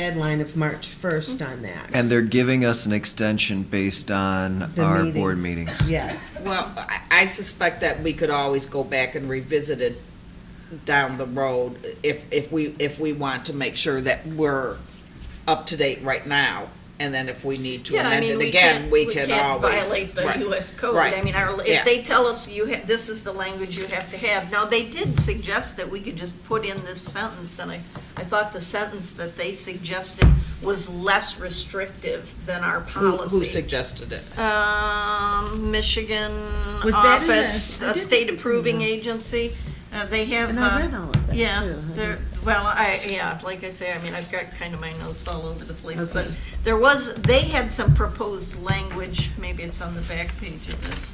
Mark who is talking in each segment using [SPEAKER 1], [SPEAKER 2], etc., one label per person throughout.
[SPEAKER 1] deadline of March 1st on that.
[SPEAKER 2] And they're giving us an extension based on
[SPEAKER 1] The
[SPEAKER 2] our
[SPEAKER 1] meeting.
[SPEAKER 2] board meetings.
[SPEAKER 1] Yes.
[SPEAKER 3] Well, I- I suspect that we could always go back and revisit it down the road if, if we, if we want to make sure that we're up to date right now. And then if we need to
[SPEAKER 4] Yeah, I
[SPEAKER 3] amend
[SPEAKER 4] mean,
[SPEAKER 3] it
[SPEAKER 4] we
[SPEAKER 3] again,
[SPEAKER 4] can't-
[SPEAKER 3] we can always.
[SPEAKER 4] Violate the
[SPEAKER 3] Right.
[SPEAKER 4] US code,
[SPEAKER 3] Right.
[SPEAKER 4] I mean, our,
[SPEAKER 3] Yeah.
[SPEAKER 4] if they tell us you have, this is the language you have to have. Now, they did suggest that we could just put in this sentence, and I, I thought the sentence that they suggested was less restrictive than our
[SPEAKER 3] Who, who
[SPEAKER 4] policy.
[SPEAKER 3] suggested it?
[SPEAKER 4] Um, Michigan
[SPEAKER 1] Was that in the-
[SPEAKER 4] Office,
[SPEAKER 1] I
[SPEAKER 4] a
[SPEAKER 1] didn't
[SPEAKER 4] state
[SPEAKER 1] see-
[SPEAKER 4] approving agency, uh, they have.
[SPEAKER 1] And I
[SPEAKER 4] uh,
[SPEAKER 1] read all of that,
[SPEAKER 4] Yeah,
[SPEAKER 1] too.
[SPEAKER 4] there, well, I, yeah, like I say, I mean, I've got kind of my notes all over the place,
[SPEAKER 1] Okay.
[SPEAKER 4] but there was, they had some proposed language, maybe it's on the back page of this,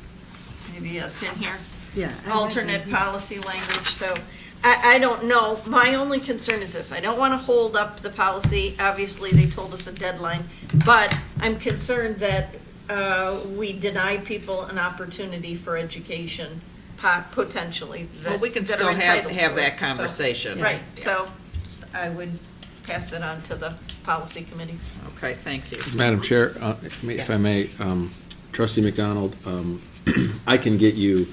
[SPEAKER 4] maybe it's in here
[SPEAKER 1] Yeah. I read
[SPEAKER 4] alternate
[SPEAKER 1] that.
[SPEAKER 4] policy language, so I, I don't know. My only concern is this, I don't want to hold up the policy, obviously, they told us a deadline, but I'm concerned that uh, we deny people an opportunity for education, po- potentially,
[SPEAKER 3] Well,
[SPEAKER 4] that
[SPEAKER 3] we can
[SPEAKER 4] that are
[SPEAKER 3] still have,
[SPEAKER 4] entitled
[SPEAKER 3] have
[SPEAKER 4] to it.
[SPEAKER 3] that
[SPEAKER 4] So-
[SPEAKER 3] conversation.
[SPEAKER 4] Right, so
[SPEAKER 3] Yes.
[SPEAKER 4] I would pass it on to the policy committee.
[SPEAKER 3] Okay, thank you.
[SPEAKER 5] Madam Chair, uh, may- if I
[SPEAKER 3] Yes.
[SPEAKER 5] may, um, trustee McDonald, um, I can get you,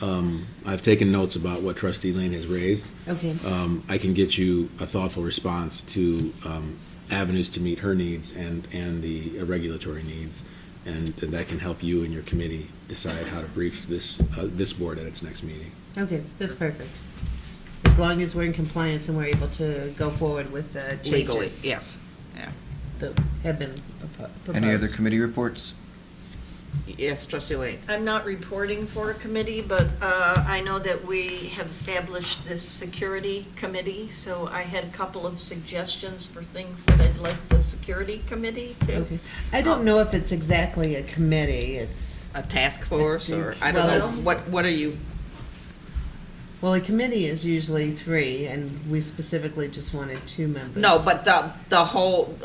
[SPEAKER 5] um, I've taken notes about what trustee Lane has raised.
[SPEAKER 1] Okay.
[SPEAKER 5] Um, I can get you a thoughtful response to um, avenues to meet her needs and, and the regulatory needs, and and that can help you and your committee decide how to brief this, uh, this board at its next meeting.
[SPEAKER 1] Okay, that's perfect. As long as we're in compliance and we're able to go forward with the
[SPEAKER 3] Legally,
[SPEAKER 1] changes
[SPEAKER 3] yes.
[SPEAKER 1] that have been propo- proposed.
[SPEAKER 2] Any other committee reports?
[SPEAKER 3] Yes, trustee Lane.
[SPEAKER 4] I'm not reporting for a committee, but uh, I know that we have established this security committee, so I had a couple of suggestions for things that I'd like the security committee to.
[SPEAKER 1] Okay. I don't know if it's exactly a committee, it's,
[SPEAKER 3] A task force or, I don't know,
[SPEAKER 1] Well, it's-
[SPEAKER 3] what, what are you,
[SPEAKER 1] well, a committee is usually three, and we specifically just wanted two members.
[SPEAKER 3] no, but the, the whole,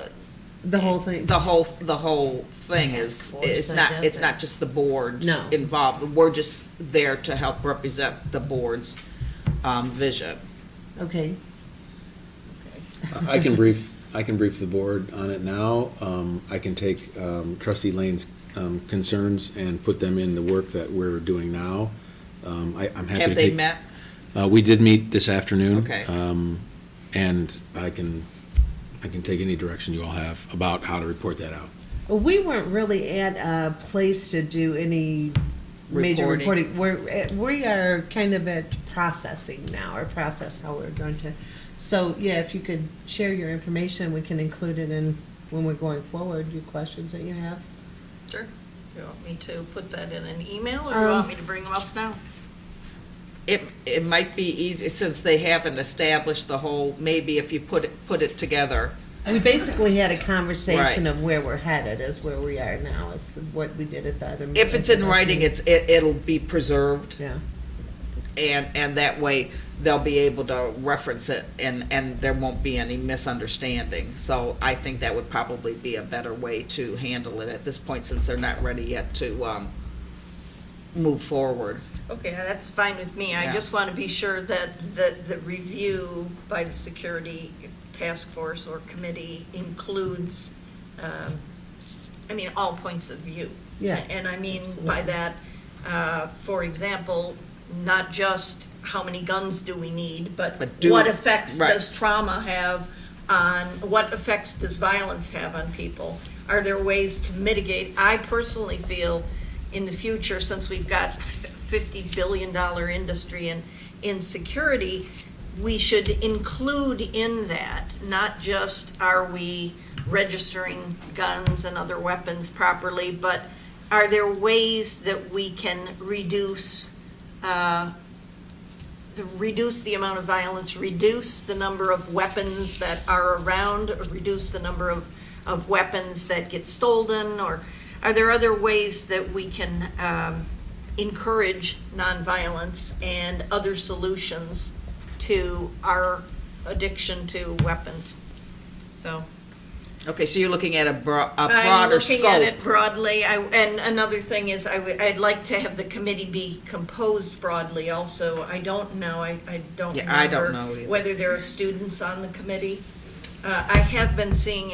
[SPEAKER 1] The whole thing,
[SPEAKER 3] The whole, the whole thing is,
[SPEAKER 1] Task force,
[SPEAKER 3] it's
[SPEAKER 1] I
[SPEAKER 3] not, it's
[SPEAKER 1] guess.
[SPEAKER 3] not just the board
[SPEAKER 1] No.
[SPEAKER 3] involved. We're just there to help represent the board's um, vision.
[SPEAKER 1] okay,
[SPEAKER 5] I- I can brief, I can brief the board on it now. Um, I can take um, trustee Lane's um, concerns and put them in the work that we're doing now. Um, I, I'm happy to
[SPEAKER 3] Have
[SPEAKER 5] take.
[SPEAKER 3] they met?
[SPEAKER 5] Uh, we did meet this afternoon.
[SPEAKER 3] Okay.
[SPEAKER 5] Um, and I can, I can take any direction you all have about how to report that out.
[SPEAKER 1] Well, we weren't really at a place to do any major
[SPEAKER 3] Reporting.
[SPEAKER 1] reporting. We're, eh, we are kind of at processing now, or process how we're going to. So, yeah, if you could share your information, we can include it in, when we're going forward, your questions that you have.
[SPEAKER 4] Sure. You want me to put that in an email, or you want
[SPEAKER 1] Um,
[SPEAKER 4] me to bring them up now?
[SPEAKER 3] It, it might be easy, since they haven't established the whole, maybe if you put it, put it together.
[SPEAKER 1] We basically had a conversation
[SPEAKER 3] Right.
[SPEAKER 1] of where we're headed, is where we are now, is what we did at that.
[SPEAKER 3] If it's in writing, it's, it, it'll be preserved.
[SPEAKER 1] Yeah,
[SPEAKER 3] And, and that way, they'll be able to reference it, and, and there won't be any misunderstanding. So I think that would probably be a better way to handle it at this point, since they're not ready yet to um, move forward.
[SPEAKER 4] Okay, uh, that's fine with me. I
[SPEAKER 3] Yeah.
[SPEAKER 4] just want to be sure that, that the review by the security task force or committee includes, um, I mean, all points of view.
[SPEAKER 1] Yeah.
[SPEAKER 4] And I mean by that, uh, for example, not just how many guns do we need, but
[SPEAKER 3] But do-
[SPEAKER 4] what effects
[SPEAKER 3] right.
[SPEAKER 4] does trauma have on, what effects does violence have on people? Are there ways to mitigate? I personally feel in the future, since we've got fifty billion dollar industry in, in security, we should include in that, not just are we registering guns and other weapons properly, but are there ways that we can reduce, uh, the- reduce the amount of violence, reduce the number of weapons that are around, or reduce the number of, of weapons that get stolen, or are there other ways that we can um, encourage nonviolence and other solutions to our addiction to weapons? So.
[SPEAKER 3] Okay, so you're looking at a bro- a
[SPEAKER 4] I'm
[SPEAKER 3] broader
[SPEAKER 4] looking at it
[SPEAKER 3] scope.
[SPEAKER 4] broadly, I, and another thing is, I would, I'd like to have the committee be composed broadly also, I don't know, I, I don't
[SPEAKER 3] Yeah, I don't
[SPEAKER 4] remember
[SPEAKER 3] know either.
[SPEAKER 4] Whether there are students on the committee, Uh, I have been seeing